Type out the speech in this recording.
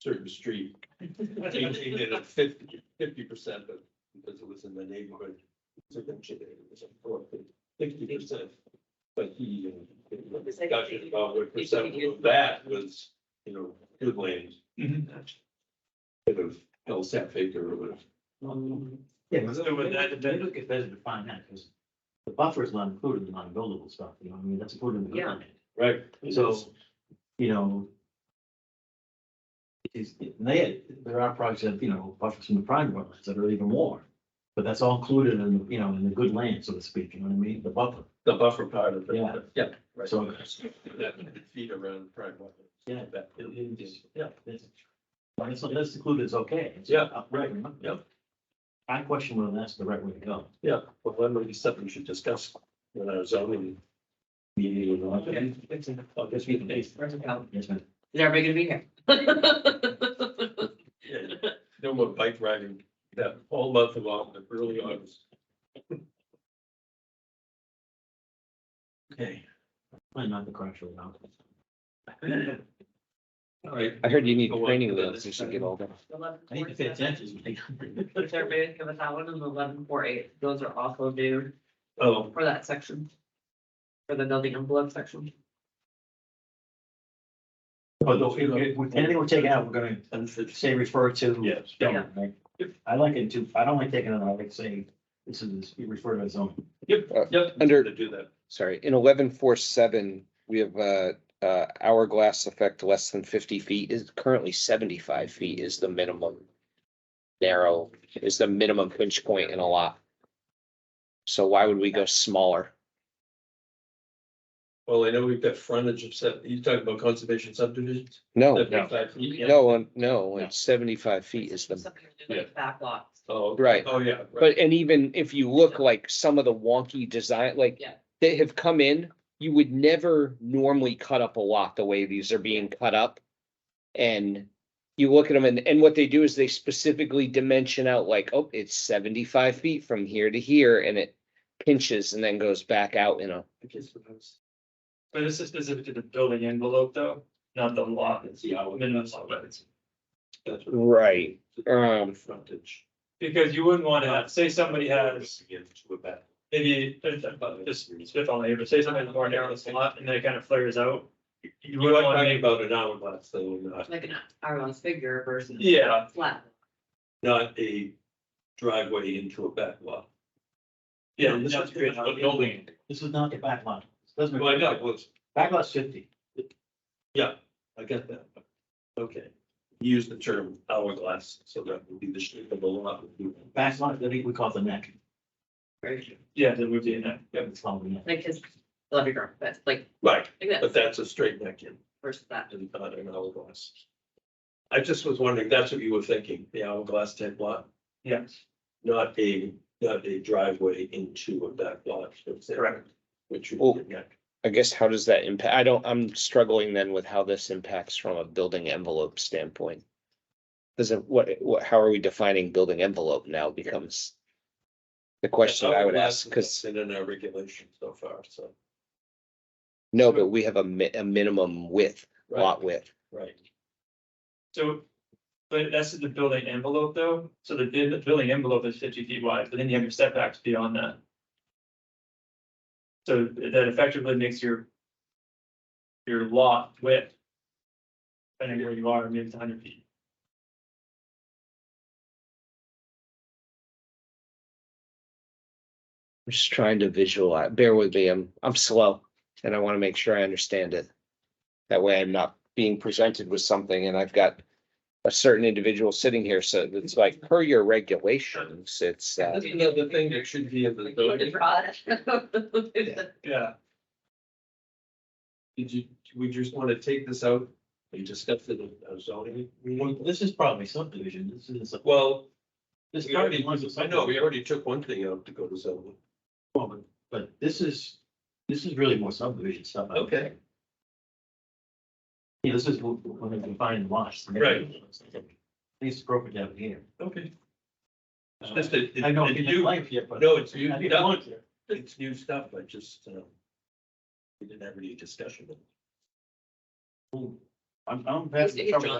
certain street. Changing it at fifty, fifty percent, but because it was in the neighborhood. So then she did it, it was like four, sixty percent. But he, uh, in the discussion about what percent of that was, you know, good land. Mm-hmm. Bit of Hell's Half Acre or whatever. Mm-hmm. Yeah, So would that- but look at better to find that, because the buffer is not included in non-buildable stuff, you know, what I mean, that's included in the Yeah. comment. Right. So, you know. It's, they, there are projects that, you know, buffers from the prime wetlands that are even more, but that's all included in, you know, in the good land, so to speak, you know what I mean, the buffer. The buffer part of it. Yeah. Yeah. right. So- That feet around prime. water. Yeah. That- It is, yeah, that's, but it's, that's included, it's okay. It's Yeah, up- right, you know? yeah. I question whether that's the right way to go. Yeah, well, that might be something we should discuss when I was zoning. Meeting or not. Okay. Oh, guess we can. Yes, ma'am. Is everybody gonna be here? Yeah, No more bike riding, that whole month of August, early August. Okay. Might not the crash or not. All right. I heard you need Go on training to the wheels, you next should get item. all Oh, that. I need to pay attention. Which are big, give us that one and eleven four eight, those are also due um, Oh, for that section. For the building envelope section. But though, if, if, we- anything we're taking out, we're gonna say refer to. Yes. Yeah, right. I like it too, I don't like taking it, out. I like saying, this is, you refer to it as zoning. yep, yep, Uh, Under- to do that. Sorry, in eleven four seven, we have uh uh hourglass effect less than fifty feet is currently seventy-five feet is the minimum. Narrow is the minimum pinch point in a lot. So why would we go smaller? Well, I know we've got frontage of set, you talking about conservation subdivisions? Oh, No, Seventy-five feet, yeah. no, um, no, it's seventy-five feet is the, Something to do with Back lots. Oh. Right. Oh, yeah. right. but and even if you look like some of the wonky design, like Yeah. they have come in, you would never normally cut up a lot the way these are being cut up. And you look at them and, and what they do is they specifically dimension out like, oh, it's seventy-five feet from here to here and it pinches and then goes back out, you know. I guess what I was- But this is specific to the building envelope though, not the lot, it's the Yeah, I would- minimum lot width. that's what- Right. Um, Frontage. Because you wouldn't want to have, say somebody has Again, to a back. maybe, just spitballing here, but say somebody has a more narrow slot and then it kind of flares out. You We're wouldn't not want to talking make, about an hourglass though, not, Like an hourglass figure versus. Yeah. Flat. not a driveway into a back lot. yeah, This that's is- great. Building. This is not the back lot. This Doesn't. Well, I know, well, it's- Back lot's fifty. I get that. Okay, use the term hourglass, so that would be the shape of the lot. Back lot, that we we call it the neck. Right. Yeah, then we'd be in that. Yeah, It's called the neck. Like his, love your girl, that's like, Right, like but that that's a straight neck in, versus that. and not an hourglass. I just was wondering, that's what you were thinking, the hourglass type lot, Yes, not a, not a driveway into a back lot. Correct. Which would be a neck. I guess how does that impact? I don't, I'm struggling then with how this impacts from a building envelope standpoint. Does it, what, what, how are we defining building envelope now becomes? The question I would Hourglass ask, is because, not In our regulation so far, so. no, but we have a mi- a minimum width, lot width. Right, so, but that's the building envelope though, so the, bu- the building envelope is fifty feet wide, but then you have your setbacks beyond that. So that effectively makes your. Your lot width. Depending where you are, maybe it's hundred feet. I'm just trying to visualize, bear with me, I'm, I'm slow and I want to make sure I understand it. That way I'm not being presented with something and I've got a certain individual sitting here, so it's like per your regulations, it's, uh. that's another thing that should be in the. Like, you already brought it. Yeah. Did you, we just want to take this out? We discussed it in our zoning. Well, this is probably subdivision. This is, Well, this is probably ones of. I know, we already took one thing out to go to zoning. But this is, this is really more subdivision stuff. I would Okay. think. Yeah, this is wh- wh- when they define lots. Right. At least broken down here. Okay. It's just that. it- Uh, I know it's you new- didn't like it, but. No, it's new, I didn't want to. it's new stuff, I just, uh, we didn't have any discussion. I'm, I'm. Let's take it, John.